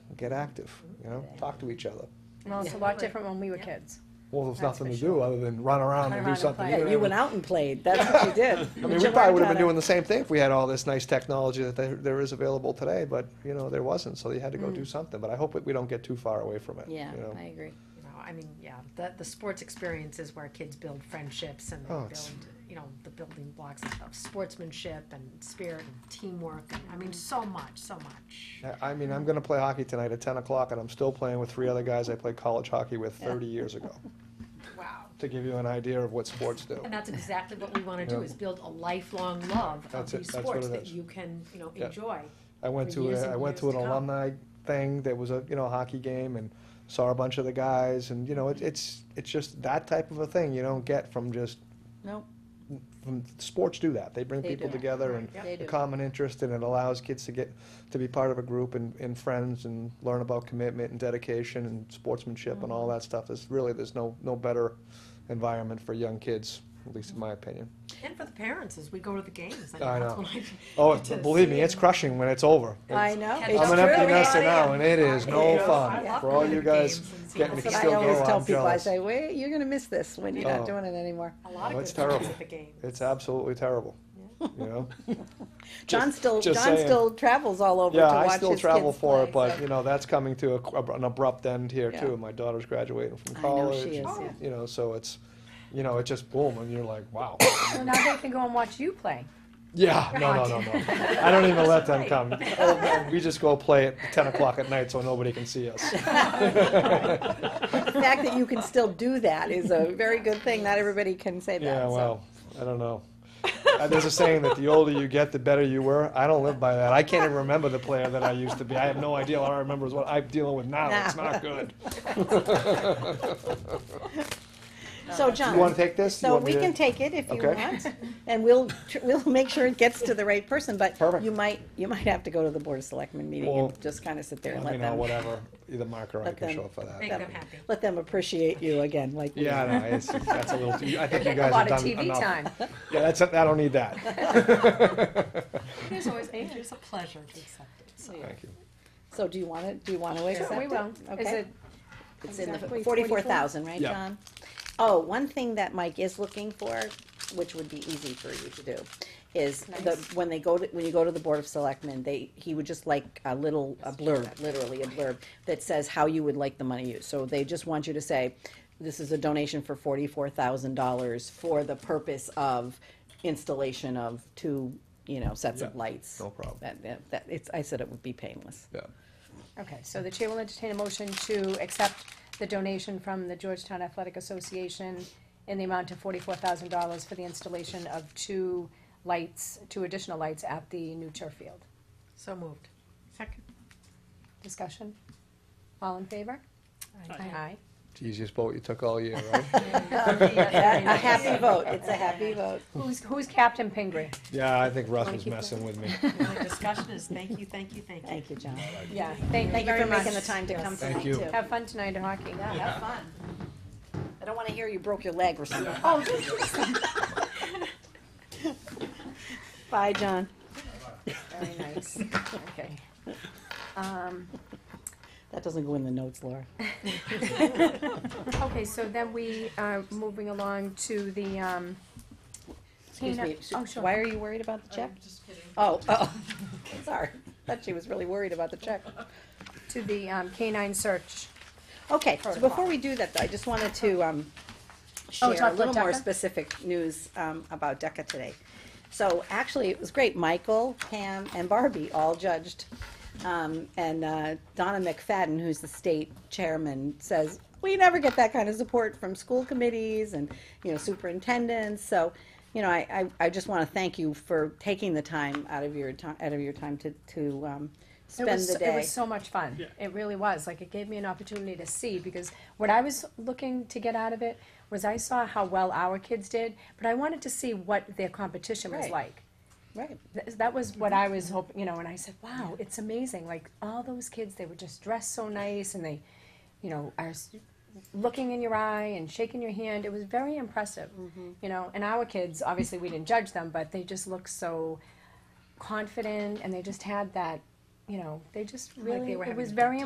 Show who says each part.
Speaker 1: get active, you know, talk to each other.
Speaker 2: Well, it's a
Speaker 3: Yeah.
Speaker 2: lot different when we were kids.
Speaker 1: Well, there's
Speaker 2: That's
Speaker 1: nothing
Speaker 2: for
Speaker 1: to do
Speaker 2: sure.
Speaker 1: other than run around
Speaker 2: Run
Speaker 1: and
Speaker 2: around
Speaker 1: do
Speaker 2: and
Speaker 1: something.
Speaker 2: play.
Speaker 1: you
Speaker 4: Yeah,
Speaker 1: don't
Speaker 4: you
Speaker 1: even-
Speaker 4: went out and played, that's what you did.
Speaker 1: I mean, we probably would have been doing the same thing if we had all this nice technology that there, there is available today, but, you know, there wasn't, so they had to go
Speaker 2: Mm.
Speaker 1: do something, but I hope that we don't get too far away from it, you
Speaker 4: Yeah,
Speaker 1: know?
Speaker 4: I agree.
Speaker 3: You know, I mean, yeah, the, the sports experience is where kids build friendships and they
Speaker 1: Oh,
Speaker 3: build,
Speaker 1: it's-
Speaker 3: you know, the building blocks of sportsmanship and spirit and teamwork. And, I mean, so much, so much.
Speaker 1: I- I mean, I'm gonna play hockey tonight at ten o'clock, and I'm still playing with three other guys I played college hockey with thirty years ago,
Speaker 3: Wow.
Speaker 1: to give you an idea of what sports do.
Speaker 3: And that's exactly what we want to
Speaker 1: Yeah.
Speaker 3: do is build a lifelong love of
Speaker 1: That's it,
Speaker 3: these
Speaker 1: that's what
Speaker 3: sports
Speaker 1: it
Speaker 3: that
Speaker 1: is.
Speaker 3: you can, you know,
Speaker 1: Yeah.
Speaker 3: enjoy.
Speaker 1: I went
Speaker 3: for
Speaker 1: to
Speaker 3: years
Speaker 1: a,
Speaker 3: and
Speaker 1: I went
Speaker 3: years
Speaker 1: to an
Speaker 3: to come.
Speaker 1: alumni thing that was a you know hockey game and saw a bunch of the guys and you know it, it's it's just that type of a thing you don't get from just
Speaker 4: Nope,
Speaker 1: from sports do that they bring
Speaker 4: They
Speaker 1: people
Speaker 4: do.
Speaker 1: together and
Speaker 3: Yeah.
Speaker 4: they
Speaker 1: a
Speaker 4: do.
Speaker 1: common interest and it allows kids to get to be part of a group and, and friends and learn about commitment and dedication and sportsmanship and all that stuff there's really there's no no better environment for young kids at least in my opinion
Speaker 3: And for the parents as we go to the games.
Speaker 1: I
Speaker 3: that's
Speaker 1: know.
Speaker 3: what I-
Speaker 1: oh
Speaker 3: get to
Speaker 1: believe me
Speaker 3: see
Speaker 1: it's crushing when it's over
Speaker 4: I
Speaker 1: It's-
Speaker 4: know.
Speaker 3: Catch
Speaker 4: it's
Speaker 1: I'm an
Speaker 3: up
Speaker 4: true.
Speaker 3: with
Speaker 1: empty
Speaker 3: everybody.
Speaker 1: nester now, and it is no
Speaker 3: Yeah.
Speaker 1: fun.
Speaker 3: I love
Speaker 1: For all
Speaker 3: going
Speaker 1: you
Speaker 3: to the
Speaker 1: guys
Speaker 3: games and seeing
Speaker 1: getting
Speaker 3: how
Speaker 1: to
Speaker 4: That's
Speaker 3: the
Speaker 4: what
Speaker 1: still
Speaker 4: I
Speaker 1: go,
Speaker 4: always tell
Speaker 1: I'm
Speaker 4: people, I
Speaker 1: jealous.
Speaker 4: say, wait, you're gonna miss this when you're
Speaker 1: Oh.
Speaker 4: not doing it anymore.
Speaker 3: A lot
Speaker 1: Oh,
Speaker 3: of
Speaker 1: it's
Speaker 3: good times
Speaker 1: terrible.
Speaker 3: at the game.
Speaker 1: It's absolutely terrible, you know?
Speaker 4: John still,
Speaker 1: just
Speaker 4: John
Speaker 1: saying.
Speaker 4: still travels all over to
Speaker 1: Yeah,
Speaker 4: watch his
Speaker 1: I
Speaker 4: kids play.
Speaker 1: still travel for it,
Speaker 4: so-
Speaker 1: but, you know, that's coming to a- an abrupt end here
Speaker 4: Yeah.
Speaker 1: too. My daughterter's graduating from
Speaker 4: I know
Speaker 1: college.
Speaker 4: she is, yeah.
Speaker 1: You know, so it's, you know, it just boom, and you're like, wow.
Speaker 2: So now they can go and watch you play.
Speaker 1: Yeah, no, no, no, no. I don't even let them come. Oh, We just go play at ten o'clock at night so nobody can see us.
Speaker 4: The fact that you can still do that is a very good thing, not everybody can say that,
Speaker 1: Yeah,
Speaker 4: so.
Speaker 1: well, I don't know. Uh, There's a saying that the older you get, the better you were. I don't live by that. I can't even remember the player that I used to be. I have no idea. All I remember is what I'm dealing with now. It's not good.
Speaker 4: So,
Speaker 1: You want
Speaker 4: John,
Speaker 1: to take this? You
Speaker 4: so
Speaker 1: want me
Speaker 4: we
Speaker 1: to-
Speaker 4: can take it if you
Speaker 1: Okay.
Speaker 4: want, and we'll, tr- we'll make sure it gets to the right person, but
Speaker 1: Perfect.
Speaker 4: you might, you might have to go to the Board of Selectmen meeting
Speaker 1: Well,
Speaker 4: and just kinda sit there and
Speaker 1: Let me
Speaker 4: let
Speaker 1: know,
Speaker 4: them,
Speaker 1: whatever. Either Mark or I
Speaker 4: Let
Speaker 1: can
Speaker 4: them-
Speaker 1: show up for that.
Speaker 3: Make
Speaker 4: Yeah.
Speaker 3: them happy.
Speaker 4: let them appreciate you again, like we
Speaker 1: Yeah,
Speaker 4: do.
Speaker 1: no, it's, that's a little, too- I think you
Speaker 2: A
Speaker 1: guys have
Speaker 2: lot of
Speaker 1: done
Speaker 2: TV
Speaker 1: enough.
Speaker 2: time.
Speaker 1: Yeah, that's, I don't need that.
Speaker 3: It is always, it is a pleasure to accept it. So
Speaker 1: Thank you.
Speaker 4: So do you want it, do you want to
Speaker 2: Sure,
Speaker 4: accept it?
Speaker 2: we will. Is
Speaker 4: Okay.
Speaker 2: it,
Speaker 4: It's in the
Speaker 2: exactly
Speaker 4: forty-four thousand, right,
Speaker 1: Yeah.
Speaker 4: John? Oh, one thing that Mike is looking for, which would be easy for you to do, is the,
Speaker 2: Nice.
Speaker 4: when they go to, when you go to the Board of Selectmen, they, he would just like a little, a blurb, literally a blurb, that says how you would like the money used. So they just want you to say, this is a donation for forty-four thousand dollars for the purpose of installation of two, you know, sets of
Speaker 1: Yeah,
Speaker 4: lights.
Speaker 1: no problem.
Speaker 4: That- That, that, it's, I said it would be painless.
Speaker 1: Yeah.
Speaker 2: okay, so the chair will entertain a motion to accept the donation from the Georgetown Athletic Association in the amount of forty-four thousand dollars for the installation of two lights, two additional lights at the new turf field.
Speaker 3: So moved. Second.
Speaker 2: Discussion? All in favor? Aye.
Speaker 1: It's the easiest vote you took all year, right?
Speaker 4: A happy vote, it's a happy vote.
Speaker 2: Who's, who's Captain Pingree?
Speaker 1: Yeah, I think Russ
Speaker 2: Wanna
Speaker 1: was
Speaker 2: keep
Speaker 1: messing with me.
Speaker 3: The discussion is thank you, thank you, thank you.
Speaker 4: Thank you, John.
Speaker 2: Yeah, thank you
Speaker 4: Thank you
Speaker 2: very
Speaker 4: for
Speaker 2: much.
Speaker 4: making the time to come
Speaker 1: Thank you.
Speaker 4: tonight, too.
Speaker 2: Have fun tonight at hockey.
Speaker 4: Yeah, have fun. I don't want to hear you broke your leg or something. Bye, John.
Speaker 2: Very nice, okay. Um,
Speaker 4: That doesn't go in the notes, Laura.
Speaker 2: Okay, so then we are moving along to the, um,
Speaker 4: Excuse
Speaker 2: Tina-
Speaker 4: me,
Speaker 2: oh, sure.
Speaker 4: why are you worried about the check?
Speaker 3: Just kidding.
Speaker 4: Oh, oh, sorry. Thought she was really worried about the check.
Speaker 2: to the um, canine search.
Speaker 4: Okay, so before
Speaker 2: Protocol.
Speaker 4: we do that, though, I just wanted to, um,
Speaker 2: Uh-huh. Oh,
Speaker 4: share
Speaker 2: talk
Speaker 4: a
Speaker 2: about
Speaker 4: little more
Speaker 2: DECA?
Speaker 4: specific news, um, about DECA today. So actually, it was great. Michael, Pam, and Barbie all judged. Um, and, uh, Donna McFadden, who's the state chairman, says, we never get that kind of support from school committees and, you know, superintendents. So, you know, I, I, I just wanna thank you for taking the time out of your time, out of your time to, to, um,
Speaker 2: It
Speaker 4: spend
Speaker 2: was
Speaker 4: the
Speaker 2: so-
Speaker 4: day.
Speaker 2: It was so much fun. It really was. Like, it gave me an opportunity to see, because what I was looking to get out of it was I saw how well our kids did, but I wanted to see what their competition was
Speaker 4: Right.
Speaker 2: like.
Speaker 4: Right.
Speaker 2: Th- That was what I was hoping, you know, and I said, wow, it's amazing. Like, all those kids, they were just dressed so nice and they, you know, are s- looking in your eye and shaking your hand. It was very impressive,
Speaker 3: Mm-hmm.
Speaker 2: you know. And our kids, obviously, we didn't judge them, but they just looked so confident and they just had that, you know, they just
Speaker 3: they
Speaker 2: really,
Speaker 3: were
Speaker 2: it
Speaker 3: having
Speaker 2: was
Speaker 3: a good
Speaker 2: very